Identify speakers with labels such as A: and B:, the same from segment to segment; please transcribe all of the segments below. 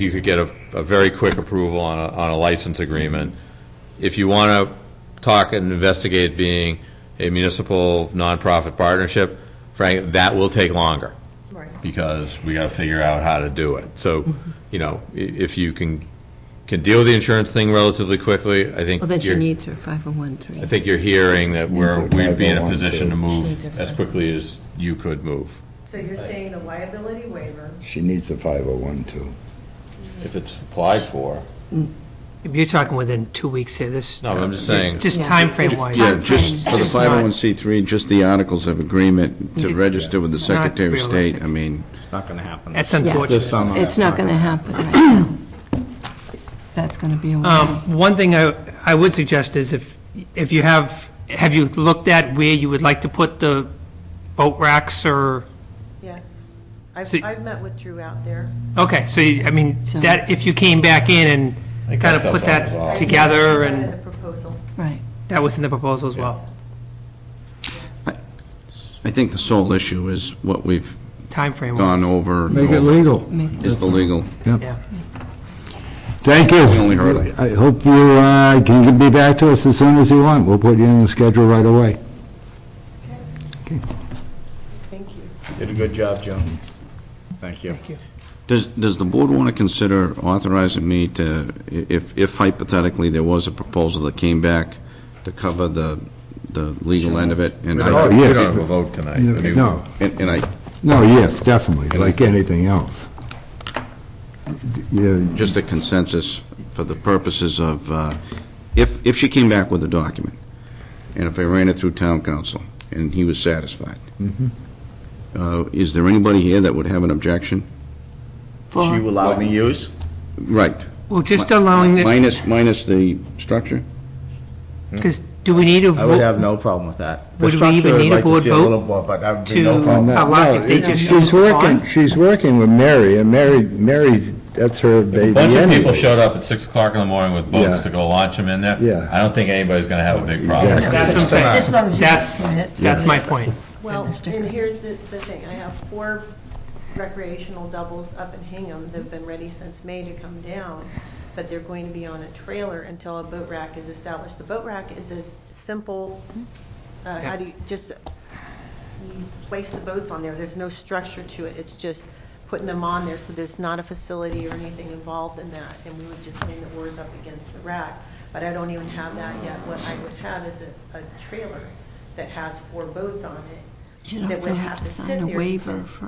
A: you could get a, a very quick approval on a, on a license agreement. If you want to talk and investigate being a municipal nonprofit partnership, Frank, that will take longer.
B: Right.
A: Because we got to figure out how to do it. So,
B: Mm-hmm.
A: you know, i- if you can, can deal with the insurance thing relatively quickly, I think.
B: Well, then she
A: you're-
B: needs her 5013.
A: I think you're hearing that we're,
C: Needs a
A: we'd be in a
C: 501
A: position to
C: too.
B: Needs a
A: move as quickly as you could move.
D: So you're saying the liability waiver,
C: She needs a 501 too.
A: If it's applied for.
E: You're talking within two weeks here, this.
A: No, I'm just saying.
E: Just
B: Yeah.
E: timeframe wise.
F: Yeah, just for the
E: It's not-
F: 501c3, just the articles of agreement to
E: Yeah.
F: register with the
E: It's not
F: Secretary of State,
E: realistic.
F: I mean,
G: It's not going to happen.
E: That's
G: This-
B: unfortunate.
G: this summer.
B: It's not going to happen right now. That's going to be a
E: Um,
B: while.
E: One thing I, I would suggest is if, if you have, have you looked at where you would like to put the boat racks or,
D: yes. I've,
E: So-
D: I've met with Drew out there.
E: okay, so, you- I mean,
B: So-
E: that, if you came back in
A: I
E: and
A: think
E: kind of
A: that's
E: put
A: how it's
E: that
A: all.
E: together
D: I provided
E: and,
D: The proposal.
B: Right.
E: that was in the proposal as well,
F: I think the sole issue is what we've
E: timeframe wise.
F: gone over. and
C: Make it
F: over,
C: legal.
F: Is the legal.
E: Yeah.
C: Thank you.
F: The only hurdle.
C: I hope you uh, can be back to us as soon as you want. We'll put you in the schedule right away.
D: Thank you.
G: Did a good job, Joan. Thank you.
E: Thank you.
F: Does, does the board want to consider authorizing me to, i- if, if hypothetically there was a proposal that came back to cover the, the legal end of it? and I
C: Oh,
A: We
C: yes.
A: don't have a vote tonight. I mean,
C: No,
F: And and I,
C: no, yes, definitely, like anything else. Yeah,
F: just a consensus for the purposes of, uh, if, if she came back with a document, and if I ran it through town council, and he was satisfied, uh, is there anybody here that would have an objection?
B: For-
F: allow me
G: use?
F: Right.
E: Well, just allowing it,
F: Minus, minus the structure?
E: because do we need a vote?
G: I would have no problem with that. The
E: Would we
G: structure,
E: even
G: I'd
E: need a
G: like to
E: board
G: see
E: vote
G: little more, But I would be
E: to-
G: no problem.
C: uh, No,
E: How long
C: no,
E: if they just
C: She's
E: showed up
C: working,
E: on?
C: she's working with Mary, and Mary, Mary's, that's her baby
A: A bunch of people
C: anyways.
A: showed up at six o'clock in the morning with boats
C: Yeah.
A: to go launch them in there.
C: Yeah.
A: I don't think anybody's gonna have a big problem.
C: Exactly.
E: That's what I'm saying.
B: Just as long as you
E: That's,
B: explain it.
E: that's my point.
D: Well,
B: Goodness,
D: and
B: Dick.
D: here's the, the thing, I have four recreational doubles up in Hingham that've been ready since May to come down, but they're going to be on a trailer until a boat rack is established. The boat rack is a simple, uh, how do you, just, you place the boats on there, there's no structure to it, it's just putting them on there, so there's not a facility or anything involved in that, and we would just lean the oars up against the rack, but I don't even have that yet. What I would have is a, a trailer that has four boats on it,
B: You'd
D: that
B: also
D: would
B: have to
D: sit
B: sign a
D: there
B: waiver
D: because
B: for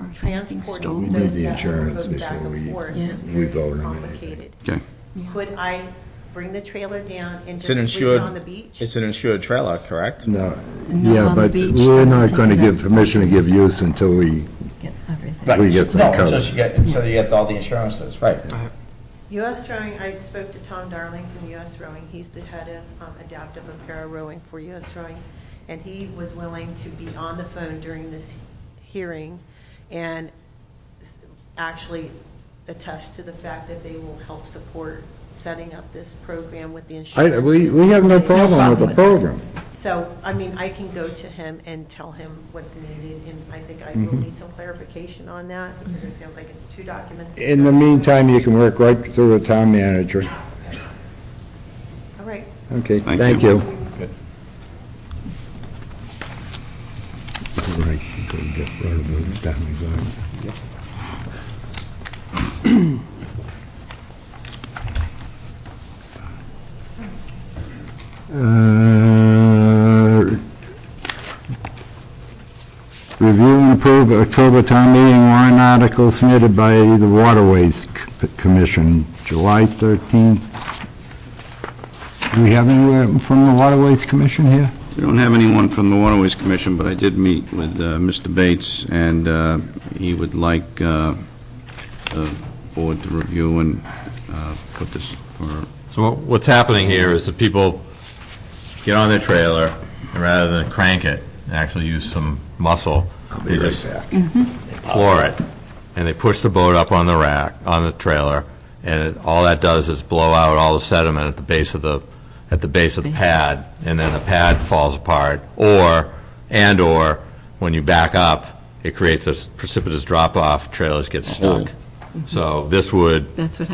D: transporting
B: drinking stall. We
C: need
D: those
C: the
D: back-
C: insurance
D: those back
C: before
D: and
C: we-
D: forth
B: Yeah.
D: is
C: we
D: very
C: vote on anything.
D: complicated.
F: Okay.
B: Yeah.
D: Could I bring the trailer down and
G: It's an
D: just leave it
G: insured,
D: on the beach?
G: it's an insured trailer, correct?
C: No,
B: Not
C: yeah,
B: on the
C: but
B: beach,
C: we're
B: they're
C: not
B: taking
C: going to
B: it
C: give
B: out.
C: permission to give use until we,
B: Get everything.
G: Right.
C: We get some
G: No,
C: coverage.
G: until you get, until you get all the insurances, right.
D: US Rowing, I spoke to Tom Darling from US Rowing, he's the head of um, adaptive apparel rowing for US Rowing, and he was willing to be on the phone during this hearing and s- actually attest to the fact that they will help support setting up this program with the
C: I,
D: insurance.
C: we, we have no problem with the program.
D: So, I mean, I can go to him and tell him what's needed, and I think I
C: Mm-hmm.
D: will need some clarification on that, because it sounds like it's two documents.
C: In the meantime, you can work right through the town manager.
D: All right,
C: Okay,
F: Thank
C: thank
F: you.
C: you.
G: Good.
C: Uh, Review and approve October town meeting warrant article submitted by the Waterways C- Commission, July 13th. Do we have anyone from the Waterways Commission here?
F: We don't have anyone from the Waterways Commission, but I did meet with uh, Mr. Bates, and uh, he would like uh, the board to review and uh, put this for
A: So what- what's happening here is that people get on their trailer, and rather than crank it, and actually use some muscle, they just floor it, and they push the boat up on the rack, on the trailer, and it- all that does is blow out all the sediment at the base of the, at the base of the pad, and then the pad falls apart, or, and/or, when you back up, it creates a precipitous drop-off, trailers get stuck. So this would
B: That's what